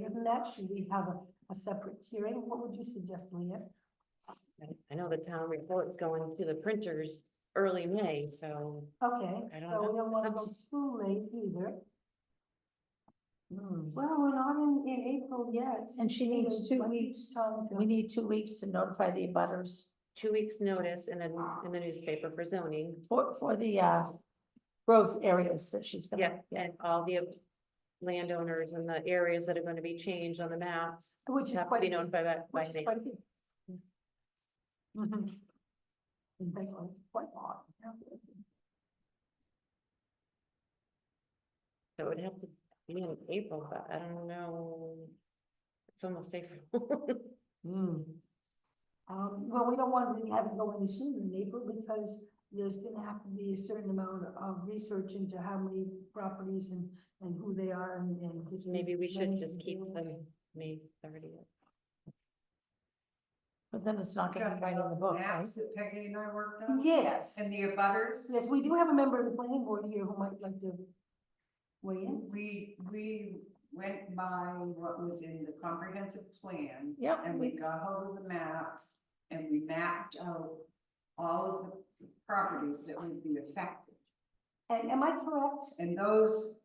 on that? Should we have a, a separate hearing? What would you suggest, Leah? I- I know the town report's going to the printers early May, so Okay, I don't so we know. don't wanna go too late either. hmm, Well, we're not in, in April yet. And she needs two weeks, Time we to, need two weeks to notify the abutters two weeks' notice in the, in the newspaper for zoning. for, for the, uh, growth areas that she's Yeah, gonna. and all the landowners and the areas that are gonna be changed on the maps. Which is Have to quite be a- notified by, by which is May. quite a few. Mm-hmm. Mhm. In fact, like, Quite a lot. So it would have to be in April, but I don't know. It's almost April. Hmm. Um, well, we don't want to have it go any sooner in April because there's gonna have to be a certain amount of research into how many properties and, and who they are and, and. who's Maybe we should just keep managing them May thirtieth. But then it's not gonna be right in the book, right? Maps that Peggy and I worked them. on, Yes, and the abutters. yes, we do have a member of the planning board here who might like to weigh in. We, we went by what was in the comprehensive plan, Yep, and we, we got hold of the maps, and we mapped out all of the properties that would be affected. And am I correct? And those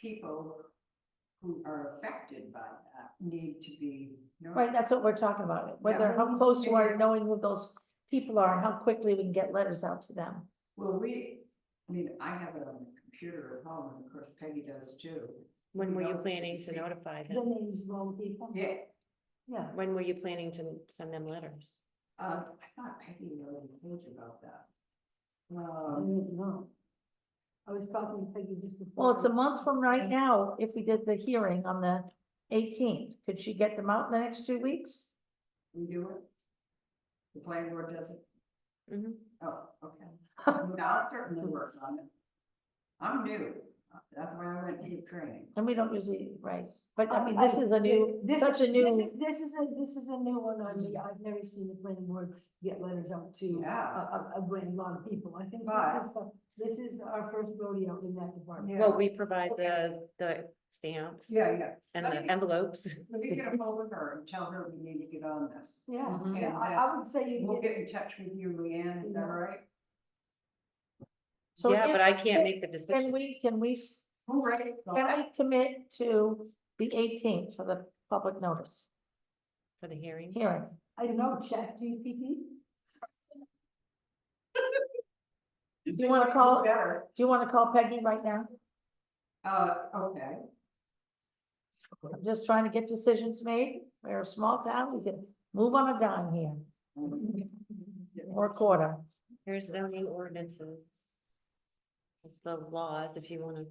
people who are affected by that need to be. right, notified. that's what we're talking about, whether, Yeah. how close you are, to knowing who those people are, and how quickly we can get letters out to them. Well, we, I mean, I have it on the computer at home, and of course Peggy does too. When were you No, planning it's to April. notify The them? names of all the people? Yeah, Yeah, When were you planning to send them letters? Uh, I thought Peggy already told you about that. I Um, don't know. I was talking to Peggy just before. Well, it's a month from right Mm-hmm. now, if we did the hearing on the eighteenth, could she get them out in the next two weeks? we do it? The planning board does it? Mm-hmm. Mhm. Oh, okay. I mean, I'll certainly work on it. I'm new. That's why I went to the training. And we don't usually, right, but Um, I mean, this is a new, This- such a this new. is- This is a, this is a new one on me. I've never seen the planning board get letters out to uh, a, Yeah. a, a great lot of people. I think But- this is, the- this is our first rodeo in that department. Well, we provide the, the stamps Yeah, yeah. and Let the me- envelopes. Let me get a hold of her and tell her we need to get on this. Yeah, Mhm. yeah, I, I would say you We'll get, get in touch with you, Leanne, is that all right? so Yeah, but if- I can't make the decision. Can we, can we, s- Who writes can the, I commit to the eighteenth for the public notice For the hearing? hearing? I don't know, chat GPT? Do you wanna call, do better? you wanna call Peggy right now? Uh, okay. I'm just trying to get decisions made. We're a small town, we can move on a dime here, or a quarter. Here's zoning ordinances. It's the laws, if you wanna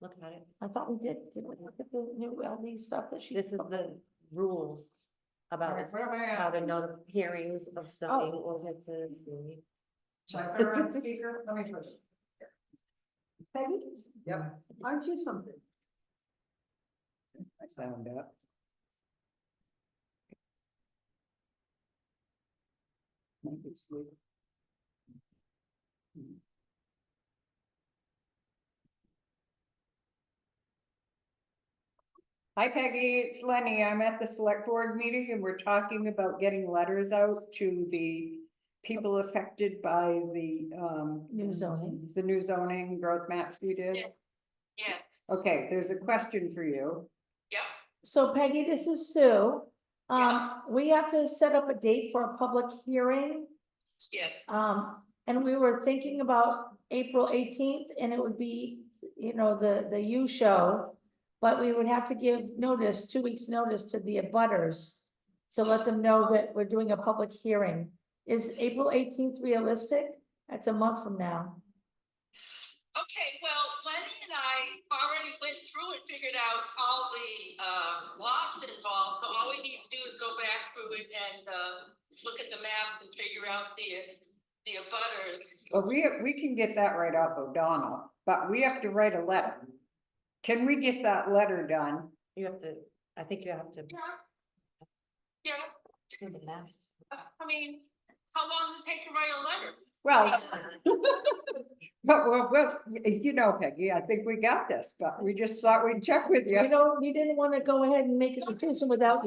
look at it. I thought we did, did we look at the new LD stuff that she? This is the rules All about right, what am I how to asking? notify hearings Oh. of zoning ordinances. and- Should I put her on speaker? Let me first. Peggy, Yep. aren't you something? I sound up. Might be asleep. Hi Peggy, it's Lenny. I'm at the select board meeting and we're talking about getting letters out to the people affected by the, um, New zoning. the new zoning growth maps we did. Yeah, Okay, there's a question for you. So Peggy, this is Sue. Um, Yeah. we have to set up a date for a public hearing. yes, Um, and we were thinking about April eighteenth and it would be, you know, the, the U show. But we would have to give notice, two weeks' notice to the abutters to let them know that we're doing a public hearing. Is April eighteenth realistic? That's a month from now. okay, well, Lenny and I already went through and figured out all the, um, lots involved, so all we need to do is go back through it and, um, look at the maps and figure out the, the abutters. Well, Uh, we, we can get that right off O'Donnell, but we have to write a letter. Can we get that letter done? You have to, I think you have to Yeah. Yeah, do the math. I mean, how long does it take to write a letter? Well. But well, well, you know, Peggy, I think we got this, but we just thought we'd check with you. You know, we didn't wanna go ahead and make a decision without